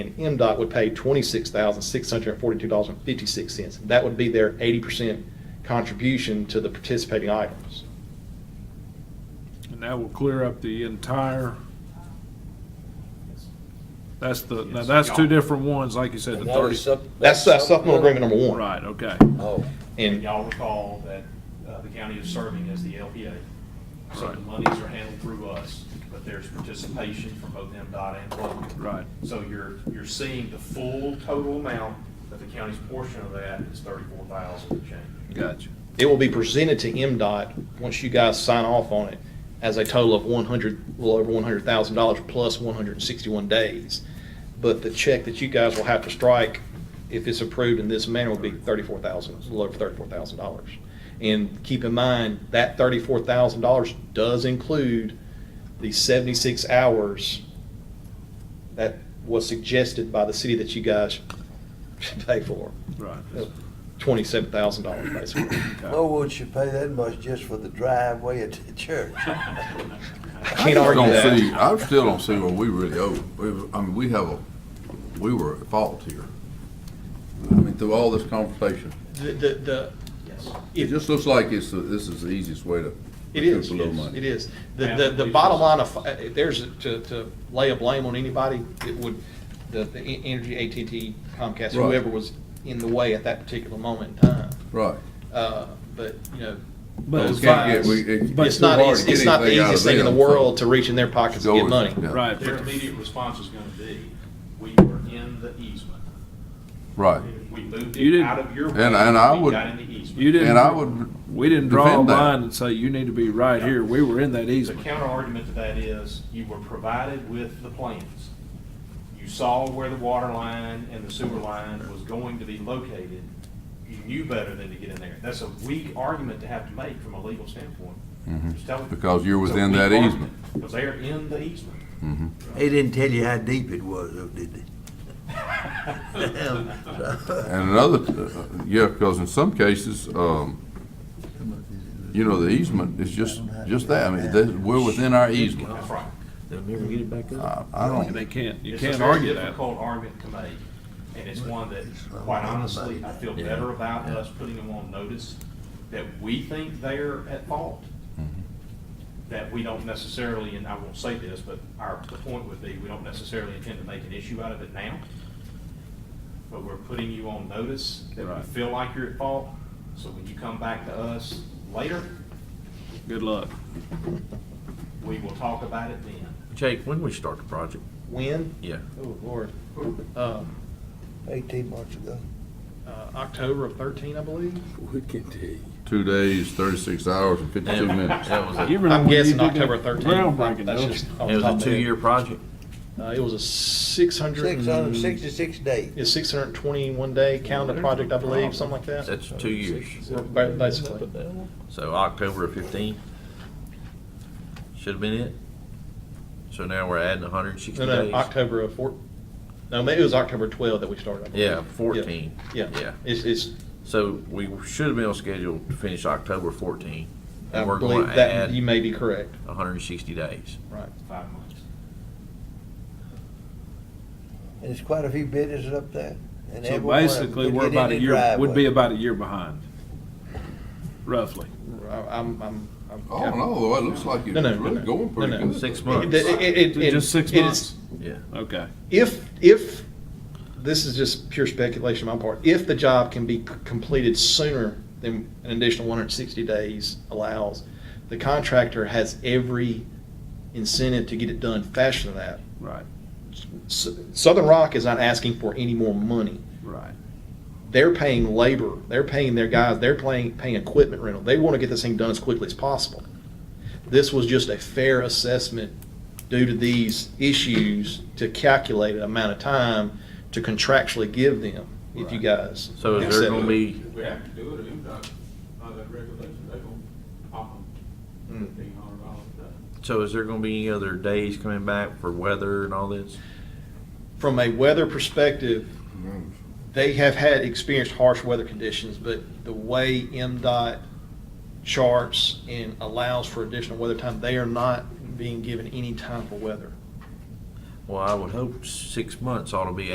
And MDOT would pay twenty-six thousand, six hundred and forty-two dollars and fifty-six cents. That would be their eighty percent contribution to the participating items. And that will clear up the entire, that's the, now that's two different ones, like you said, the And that thirty. was sup- That's uh, supplemental agreement number one. Right, okay. Oh, And And y'all recall that uh, the county is serving as the LPA. So the Right. monies are handled through us, but there's participation from both MDOT and local. Right. So you're, you're seeing the full total amount, but the county's portion of that is thirty-four thousand and change. Gotcha. it will be presented to MDOT, once you guys sign off on it, as a total of one hundred, a little over one hundred thousand dollars plus one hundred and sixty-one days. But the check that you guys will have to strike, if it's approved in this manner, will be thirty-four thousand, a little over thirty-four thousand dollars. And keep in mind, that thirty-four thousand dollars does include the seventy-six hours that was suggested by the city that you guys should pay for, Right. twenty-seven thousand dollars basically. Okay. well, would you pay that much just for the driveway at the church? I I can't just argue don't that. see- I still don't see what we really owe. We- I mean, we have a, we were at fault here. I mean, through all this conversation, The, the, the, it it just looks like it's, the- this is the easiest way to. it is, to blow money. it is. The, the, the bottom line of, if there's, to, to lay a blame on anybody, it would, the, the en- Energy, AT&T, Comcast, Right. whoever was in the way at that particular moment in time. Right. Uh, but, you know, But we it's can't fine. get- we- it- But it's not, hard it's to get it's not the anything out of easiest thing in the them. world to reach in their pockets and Go get with- money. yeah. Right, Their but immediate response is gonna be, we were in the easement. Right. We moved You it didn't- out of your. And- and I way, we would- Got in the easement. you didn't. And I would, We didn't draw a defend that. line and say, you need to be right here. We were in that The easement. counter argument to that is, you were provided with the plans. You saw where the water line and the sewer line was going to be located. You knew better than to get in there. That's a weak argument to have to make from a legal standpoint. Just tell them. Mm-hmm. Because you're It's a within weak that argument, easement. Because they're in the easement. They didn't tell you how deep it was, though, did they? and another, uh, yeah, because in some cases, um, you know, the easement is just, just that. I mean, that- we're within our easement. That's right. I I They don't, can't, you It's a can't very argue that. Difficult argument to make, and it's one that, quite honestly, I feel better about us putting them on notice that we think they're at fault. That we don't necessarily, and I won't say this, but our, the point would be, we don't necessarily intend to make an issue out of it now. But we're putting you on notice that we Right. feel like you're at fault, so when you come back to us later, Good luck. we will talk about it then. Jake, when we start the project? When? Yeah. Oh, Lord. Um, Eighteen months ago. uh, October of thirteen, I believe. two days, thirty-six hours and fifty-two minutes. That was a, You it remember I'm when you guessing did that October thirteen. Groundbreaking, That's though. just off the top was a of my head. two-year project? Uh, it was a six hundred. Six hundred and sixty-six days. It's six hundred and twenty-one day calendar project, I believe, something like that. That's two years. Ba- Basically. So October of fifteen should have been it. So now we're adding hundred and No, sixty no, days. October of four, no, maybe it was October twelve that we started. Yeah, fourteen. Yeah. Yeah. It's, it's, So we should have been on schedule to finish October fourteen. I And we're going believe to that, you add may be correct, hundred and sixty days. right. Five months. And there's quite a few businesses up there. and So every one of them basically, could we're get in about the a year, would be driveway. about a year behind, roughly. I- I'm, I'm. I'm- Oh, no, though, it looks like No, no, it's no, really no. going pretty No, no. good. Six It- months. it- it- it- Just six it is- months? Yeah. Okay. If, if, this is just pure speculation on my part, if the job can be c- completed sooner than an additional one hundred and sixty days allows, the contractor has every incentive to get it done faster than that. Right, S- Southern Rock is not asking for any more money. right. They're paying labor, they're paying their guys, they're paying, paying equipment rental. They want to get this thing done as quickly as possible. This was just a fair assessment due to these issues to calculate an amount of time to contractually give them, if you guys. So is there accept gonna it. be, If we have to do it, MDOT, by that regulation, they gonna pop them Mm. fifteen hundred dollars a day. so is there gonna be any other days coming back for weather and all this? From a weather perspective, they have had experienced harsh weather conditions, but the way MDOT charts and allows for additional weather time, they are not being given any time for weather. Well, I would hope six months ought to be